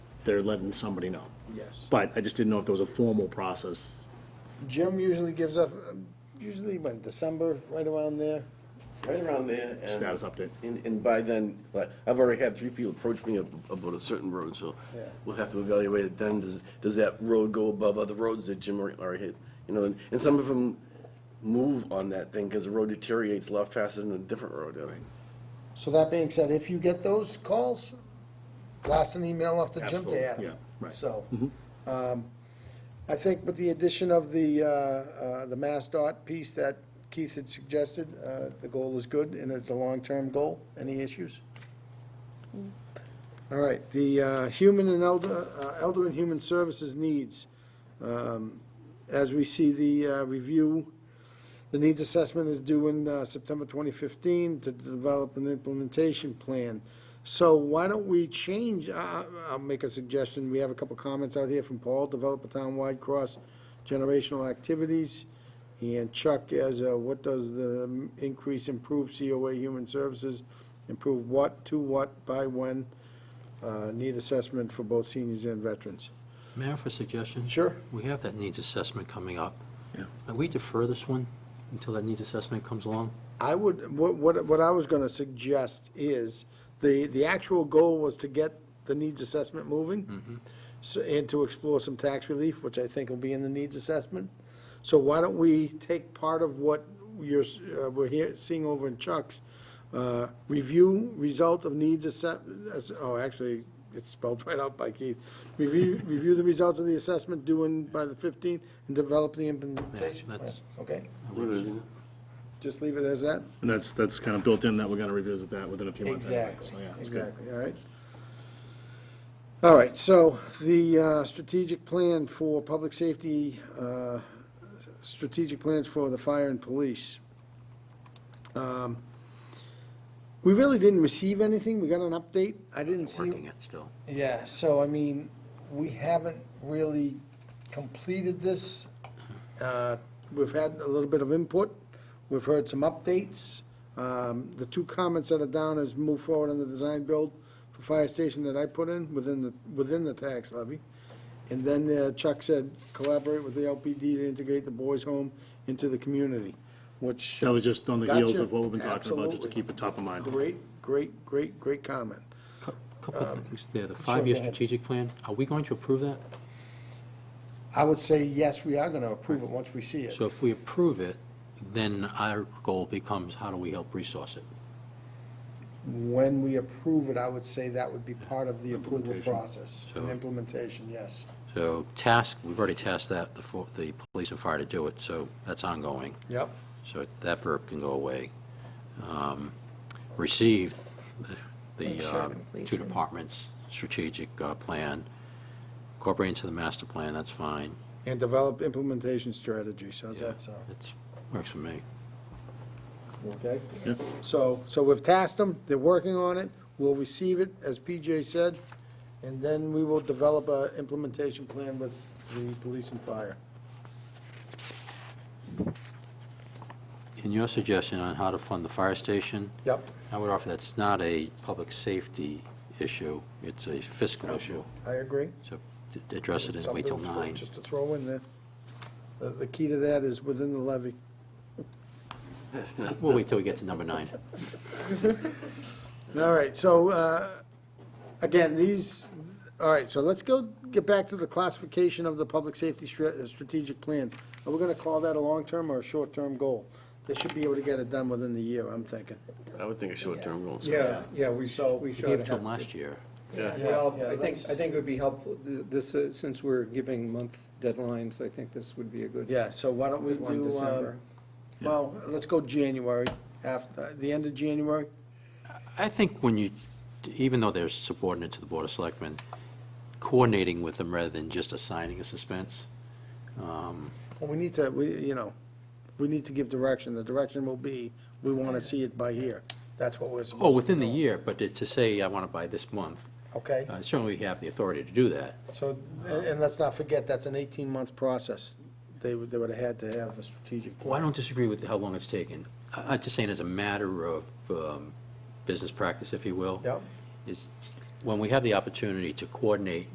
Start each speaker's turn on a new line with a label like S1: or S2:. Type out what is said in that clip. S1: they're letting somebody know.
S2: Yes.
S1: But I just didn't know if there was a formal process.
S2: Jim usually gives up, um, usually by December, right around there.
S3: Right around there. and-
S1: Status update.
S3: And, and by then, like, I've already had three people approach me ab- about a certain road, so
S2: Yeah.
S3: we'll have to evaluate it then. Does, does that road go above other roads that Jim already- already hit? You know, and, and some of them move on that thing because the road deteriorates a lot faster than a different road. uh, I mean,
S2: So that being said, if you get those calls, blast an email off to Jim
S1: Absolutely,
S2: to Adam.
S1: yeah, right.
S2: So, um, I think with the addition of the, uh, uh, the Mass Dot piece that Keith had suggested, uh, the goal is good and it's a long-term goal. Any issues? All right, the, uh, human and elder, uh, elder and human services needs. Um, as we see the, uh, review, the needs assessment is due in uh, September 2015 to develop an implementation plan. So why don't we change, I- I- I'll make a suggestion, we have a couple comments out here from Paul, develop a town-wide cross-generational activities. And Chuck, as, a, what does the um, increase improve COA human services, improve what, to what, by when? Uh, Need assessment for both seniors and veterans.
S4: May I offer a suggestion?
S2: Sure.
S4: We have that needs assessment coming up.
S1: Yeah.
S4: Can we defer this one until that needs assessment comes along?
S2: I would, what, what, what I was gonna suggest is, the, the actual goal was to get the needs assessment moving. So, and to explore some tax relief, which I think will be in the needs assessment. So why don't we take part of what you're, s- uh, we're here, seeing over in Chuck's, uh, review result of needs assess, as- oh, actually, it's spelled right out by Keith. Review, review the results of the assessment due in by the fifteenth and develop the implementation plan,
S4: that's-
S2: okay?
S3: Literally,
S2: Just leave it as that?
S1: And that's, that's kind of built in that we're gonna revisit that within a few months. anyway.
S2: Exactly,
S1: So, yeah, it's good.
S2: exactly, all right. All right, so the uh, strategic plan for public safety, uh, strategic plans for the fire and police. Um, We really didn't receive anything, we got an update, I didn't see.
S4: Working it still.
S2: Yeah, so I mean, we haven't really completed this. Uh, We've had a little bit of input, we've heard some updates. Um, The two comments that are down is move forward on the design build for fire station that I put in within the, within the tax levy. And then uh, Chuck said collaborate with the LPD to integrate the boys' home into the community, which.
S1: That was just on the heels
S2: Gotcha.
S1: of what we've been talking about, just to
S2: Absolutely.
S1: keep it top of mind.
S2: Great, great, great, great comment.
S4: Cou- Couple of things there, the
S2: go
S4: five-year
S2: ahead.
S4: strategic plan, are we going to approve that?
S2: I would say, yes, we are gonna approve it once we see it.
S4: So if we approve it, then our goal becomes how do we help resource it?
S2: When we approve it, I would say that would be part of the approval
S1: Implementation.
S2: process. and
S4: So-
S2: Implementation, yes.
S4: So task, we've already tasked that, the, fo- the police and fire to do it, so that's ongoing.
S2: Yep.
S4: So that verb can go away. Um, Receive the- the
S5: Ensure
S4: uh, two
S5: completion.
S4: departments' strategic uh, plan, incorporate into the master plan, that's fine.
S2: And develop implementation strategies, how's
S4: Yeah,
S2: that sound?
S4: That's, works for me.
S2: Okay.
S1: Yeah.
S2: So, so we've tasked them, they're working on it, we'll receive it, as PJ said, and then we will develop a implementation plan with the police and fire.
S4: In your suggestion on how to fund the fire station,
S2: Yep,
S4: I would offer that's not a public safety issue, it's a fiscal issue.
S2: I agree.
S4: So to address it and wait till
S2: Something
S4: nine.
S2: Just to throw in there. The, the key to that is within the levy.
S4: We'll wait till we get to number nine.
S2: All right, so, uh, again, these, all right, so let's go, get back to the classification of the public safety stra- uh, strategic plans. Are we gonna call that a long-term or a short-term goal? They should be able to get it done within the year, I'm thinking.
S3: I would think a short-term goal. so-
S6: Yeah, yeah, we
S2: So-
S6: should, we
S4: We
S6: should
S4: gave it
S6: have.
S4: to them last year.
S3: Yeah.
S6: Well,
S2: Yeah, yeah,
S6: I think,
S2: let's-
S6: I think it would be helpful, th- this, uh, since we're giving month deadlines, I think this would be a good.
S2: Yeah, so why don't we
S6: good one,
S2: do, uh,
S6: December.
S2: well, let's go January, after, the end of January?
S4: I think when you, even though they're subordinate to the Board of Selectmen, coordinating with them rather than just assigning a suspense. um,
S2: Well, we need to, we, you know, we need to give direction. The direction will be, we wanna see it by here. That's what we're supposed to
S4: Oh, within the
S2: do.
S4: year, but to say I want to buy this month,
S2: Okay?
S4: uh, certainly we have the authority to do that.
S2: So, and, and let's not forget, that's an eighteen-month process. They would, they would have had to have a strategic
S4: Well, I
S2: plan.
S4: don't disagree with how long it's taken. I- I'm just saying as a matter of um, business practice, if you will.
S2: Yep.
S4: Is when we have the opportunity to coordinate